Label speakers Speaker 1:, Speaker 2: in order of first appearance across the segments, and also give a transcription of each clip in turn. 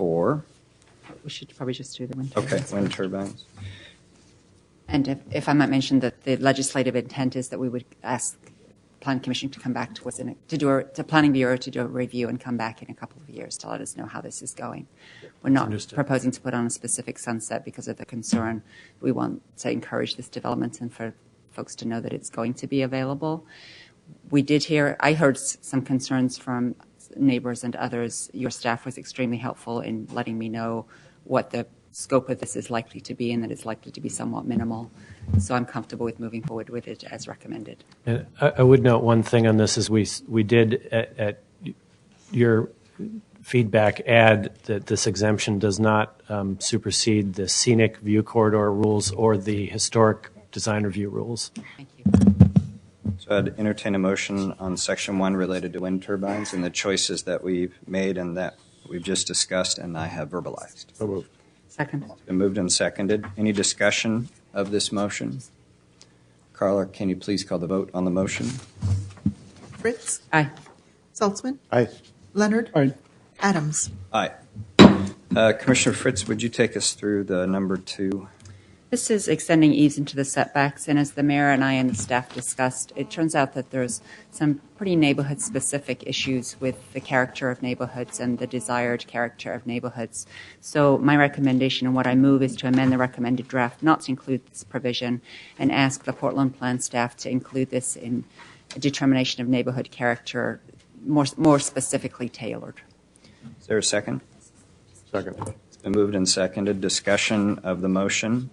Speaker 1: for,
Speaker 2: We should probably just do the wind turbines.
Speaker 1: okay, wind turbines.
Speaker 2: And if, if I might mention that the legislative intent is that we would ask Planning Commission to come back to us in a, to do a, to Planning Bureau to do a review and come back in a couple of years to let us know how this is going. We're not
Speaker 3: Understood.
Speaker 2: proposing to put on a specific sunset because of the concern. We want to encourage this development and for folks to know that it's going to be available. We did hear, I heard s- some concerns from neighbors and others. Your staff was extremely helpful in letting me know what the scope of this is likely to be and that it's likely to be somewhat minimal. So I'm comfortable with moving forward with it as recommended.
Speaker 3: And I, I would note one thing on this is we, s- we did at, at your feedback add that this exemption does not um, supersede the scenic view corridor rules or the historic design review rules.
Speaker 2: Thank you.
Speaker 1: So I'd entertain a motion on section one related to wind turbines and the choices that we've made and that we've just discussed and I have verbalized.
Speaker 2: Second.
Speaker 1: Been moved and seconded. Any discussion of this motion? Carla, can you please call the vote on the motion?
Speaker 4: Fritz.
Speaker 2: Aye.
Speaker 4: Saltzman.
Speaker 5: Aye.
Speaker 4: Leonard.
Speaker 5: Aye.
Speaker 4: Adams.
Speaker 1: Aye. Uh, Commissioner Fritz, would you take us through the number two?
Speaker 2: This is extending eaves into the setbacks, and as the mayor and I and the staff discussed, it turns out that there's some pretty neighborhood-specific issues with the character of neighborhoods and the desired character of neighborhoods. So my recommendation and what I move is to amend the recommended draft not to include this provision and ask the Portland Plan staff to include this in a determination of neighborhood character more, more specifically tailored.
Speaker 1: Is there a second?
Speaker 5: Second.
Speaker 1: It's been moved and seconded. Discussion of the motion.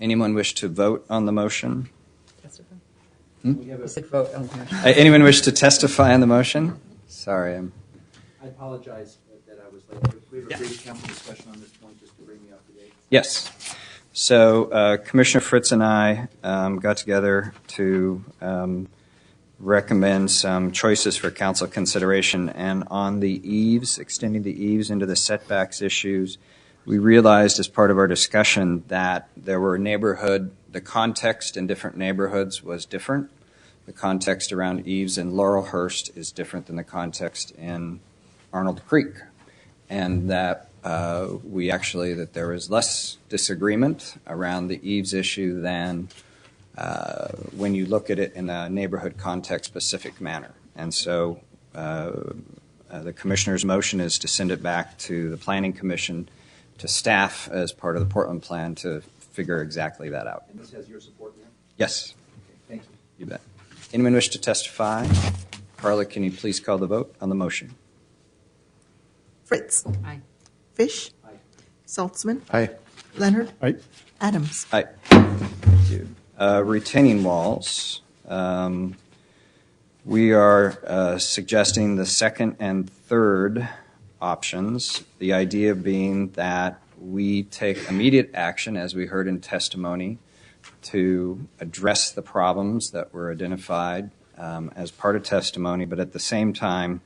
Speaker 1: Anyone wish to vote on the motion?
Speaker 2: You said vote on the-
Speaker 1: Uh, Anyone wish to testify on the motion? Sorry, I'm
Speaker 6: I apologize that I was late. We have a brief council discussion on this point, just to bring me up to date.
Speaker 1: Yes. So uh, Commissioner Fritz and I um, got together to um, recommend some choices for council consideration. And on the eaves, extending the eaves into the setbacks issues, we realized as part of our discussion that there were neighborhood, the context in different neighborhoods was different. The context around eaves in Laurelhurst is different than the context in Arnold Creek. And that uh, we actually that there was less disagreement around the eaves issue than uh, when you look at it in a neighborhood context specific manner. And so uh, uh, the commissioner's motion is to send it back to the planning commission to staff as part of the Portland plan to figure exactly that out.
Speaker 6: And this has your support, ma'am?
Speaker 1: Yes,
Speaker 6: Okay, Thank
Speaker 1: you
Speaker 6: you.
Speaker 1: bet. Anyone wish to testify? Carla, can you please call the vote on the motion?
Speaker 4: Fritz.
Speaker 2: Aye.
Speaker 4: Fish.
Speaker 6: Aye.
Speaker 4: Saltzman.
Speaker 5: Aye.
Speaker 4: Leonard.
Speaker 5: Aye.
Speaker 4: Adams.
Speaker 1: Aye. Thank you. Uh, Retaining walls. um, We are uh, suggesting the second and third options, the idea being that we take immediate action, as we heard in testimony, to address the problems that were identified um, as part of testimony, but at the same time,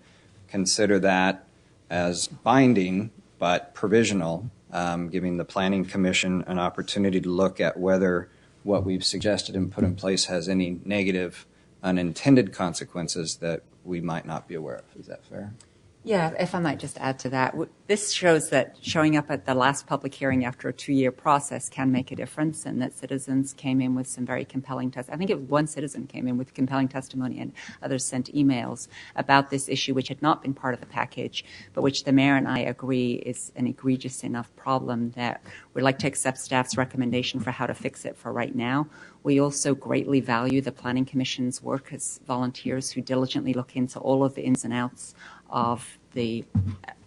Speaker 1: consider that as binding but provisional, um, giving the Planning Commission an opportunity to look at whether what we've suggested and put in place has any negative unintended consequences that we might not be aware of. Is that fair?
Speaker 2: Yeah, if I might just add to that, w- this shows that showing up at the last public hearing after a two-year process can make a difference, and that citizens came in with some very compelling test. I think it, one citizen came in with compelling testimony, and others sent emails about this issue, which had not been part of the package, but which the mayor and I agree is an egregious enough problem that we'd like to accept staff's recommendation for how to fix it for right now. We also greatly value the Planning Commission's work as volunteers who diligently look into all of the ins and outs of the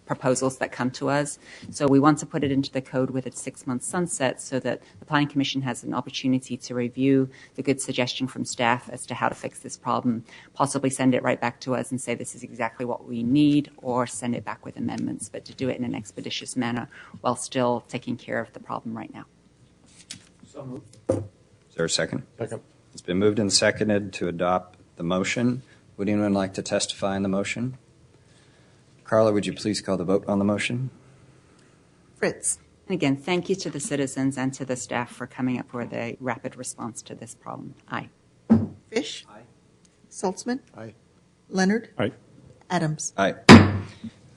Speaker 2: proposals that come to us. So we want to put it into the code with a six-month sunset so that the Planning Commission has an opportunity to review the good suggestion from staff as to how to fix this problem, possibly send it right back to us and say this is exactly what we need, or send it back with amendments, but to do it in an expeditious manner while still taking care of the problem right now.
Speaker 6: So moved.
Speaker 1: Is there a second?
Speaker 5: Second.
Speaker 1: It's been moved and seconded to adopt the motion. Would anyone like to testify on the motion? Carla, would you please call the vote on the motion?
Speaker 4: Fritz.
Speaker 2: And again, thank you to the citizens and to the staff for coming up with a rapid response to this problem. Aye.
Speaker 4: Fish.
Speaker 6: Aye.
Speaker 4: Saltzman.
Speaker 5: Aye.
Speaker 4: Leonard.
Speaker 5: Aye.
Speaker 4: Adams.
Speaker 1: Aye.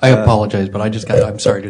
Speaker 5: I apologize, but I just got, I'm sorry to